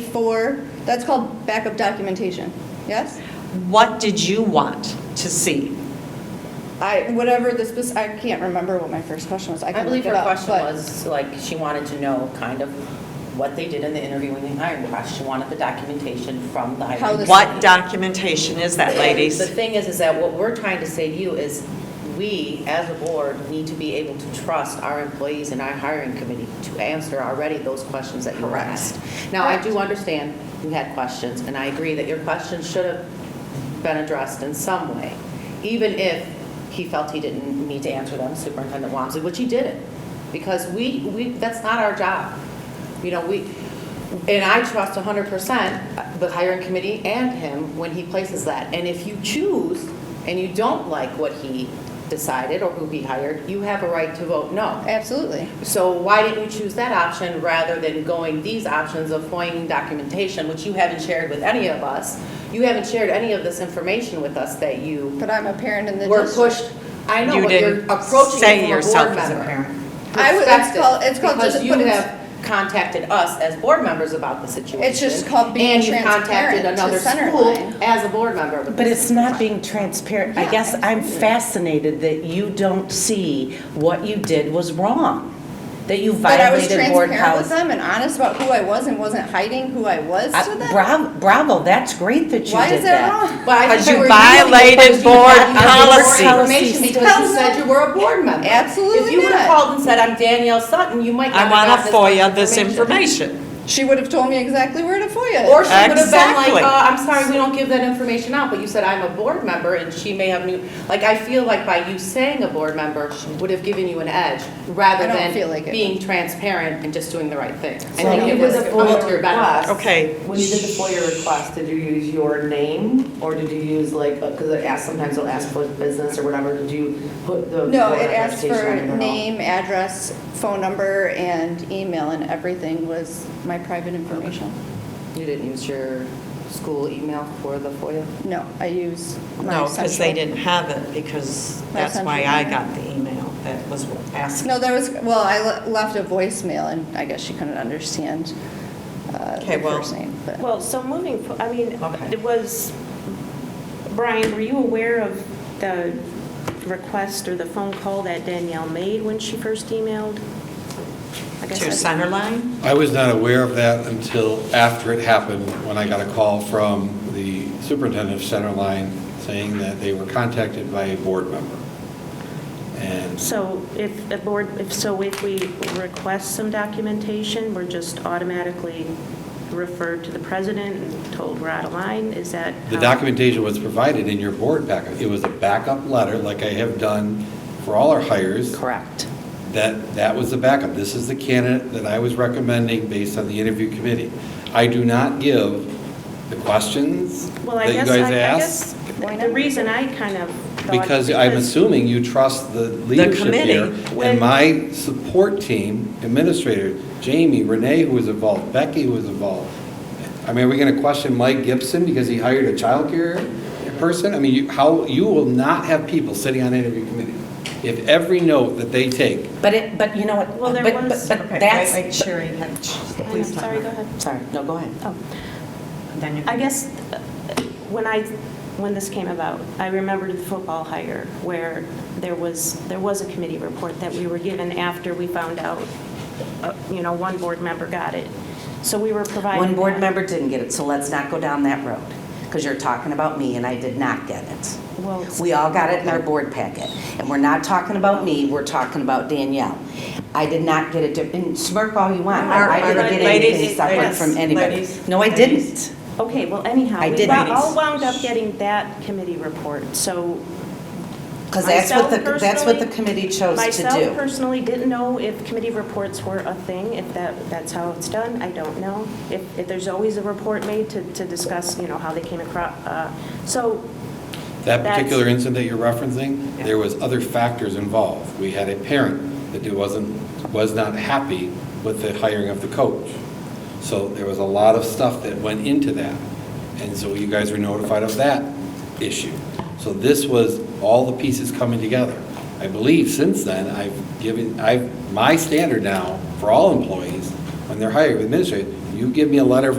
before, that's called backup documentation, yes? What did you want to see? I, whatever the spec, I can't remember what my first question was, I I can look believe it her up, question but- was, like, she wanted to know kind of what they did in the interview when they hired Rush. She wanted the documentation from the How hiring. this- What documentation is that, The ladies? thing is, is that what we're trying to say to you is, we, as a board, need to be able to trust our employees and our hiring committee to answer already those questions that you were Correct. asked. Now, I do Correct. understand you had questions, and I agree that your questions should have been addressed in some way, even if he felt he didn't need to answer them, Superintendent Wamsley, which he didn't, because we, we, that's not our job. You know, we, and I trust 100% the hiring committee and him when he places that. And if you choose and you don't like what he decided or who he hired, you have a right to vote no. Absolutely. So why didn't you choose that option rather than going these options of FOIAing documentation, which you haven't shared with any of us? You haven't shared any of this information with us that you But I'm a parent in the were district. pushed. I know, You but you're didn't approaching say it from a yourself board as member. a parent. I would- it's Perspective, called- it's called just- but Because you it's- have contacted us as board members about the situation. It's just called being transparent to And you contacted center another line. school as a board member. with But this it's not being transparent. I guess I'm fascinated that you don't see what you did was wrong, that you But I was violated board transparent with policy. them and honest about who I was and wasn't hiding who I was to Uh, them. Bravo, bravo, that's great that you Why is did that that. wrong? But I Because think you that we're using it violated because you board got the board policy. Information because you said you were a board member. Absolutely If you would have not. called and said, I'm Danielle Sutton, you might not I have want to gotten FOIA this information. She would have told me exactly where to FOIA. Or she would have been Exactly. like, uh, I'm sorry, we don't give that information out, but you said I'm a board member and she may have knew, like, I feel like by you saying a board member she would have given you an edge rather I don't than feel like it. being transparent and just doing the right thing. I So think when you it did was the all to FOIA your benefit. request. Okay. When you did the FOIA request, did you use your name or did you use like, because it asks, sometimes it'll ask for business or whatever, did you put the? No, board it asked identification for on it at all? name, address, phone number, and email, and everything was my private information. You didn't use your school email for the FOIA? No, I used my No, because they central- didn't have it, because My that's why central I email. got the email that was asking. No, there was, well, I le- left a voicemail, and I guess she couldn't understand uh, Okay, the well- first name, but. Well, so moving, fo- I mean, Okay. it was, Brian, were you aware of the request or the phone call that Danielle made when she first emailed? I guess To I- Centerline? I was not aware of that until after it happened, when I got a call from the superintendent of Centerline saying that they were contacted by a board member. And So if a board, if, so if we request some documentation, we're just automatically referred to the president and told we're out of line? Is that? the how- documentation was provided in your board packet. It was a backup letter, like I have done for all our hires. Correct. That, that was the backup. This is the candidate that I was recommending based on the interview committee. I do not give the questions Well, I that you guess, guys I I ask. guess, the reason I kind of thought. Because I'm assuming you trust the leadership committee. here. When- And my support team, administrator, Jamie, Renee, who was involved, Becky, who was involved. I mean, are we going to question Mike Gibson because he hired a childcare person? I mean, you- how, you will not have people sitting on interview committee if every note that they take But it, but you know what? Well, there but- was- But Okay, but wait, wait, that's, Sherry, had- I'm please sorry, go ahead. Sorry, no, go ahead. Oh. Then you- I guess uh, when I, when this came about, I remembered the football hire where there was, there was a committee report that we were given after we found out, uh, you know, one board member got it. So we were provided. One board that. member didn't get it, so let's not go down that road, because you're talking about me, and I did not get it. Well, it's- We all got it in our board packet, and we're not talking about me, we're talking about Danielle. I did not get it, di- and smirk all you want, I I didn't get Ladies, anything separate ladies, from anybody. ladies, No, I ladies. didn't. Okay, well anyhow, I we didn't. all wound up getting that committee report, so Because that's what the, Myself that's what the personally- committee chose to Myself do. personally didn't know if committee reports were a thing, if that, that's how it's done, I don't know. If, if there's always a report made to, to discuss, you know, how they came across, uh, so, That That's- particular incident that you're referencing, there was other factors involved. We had a parent that wasn't, was not happy with the hiring of the coach. So there was a lot of stuff that went into that. And so you guys were notified of that issue. So this was all the pieces coming together. I believe since then, I've given, I've, my standard now for all employees, when they're hired with administrative, you give me a letter of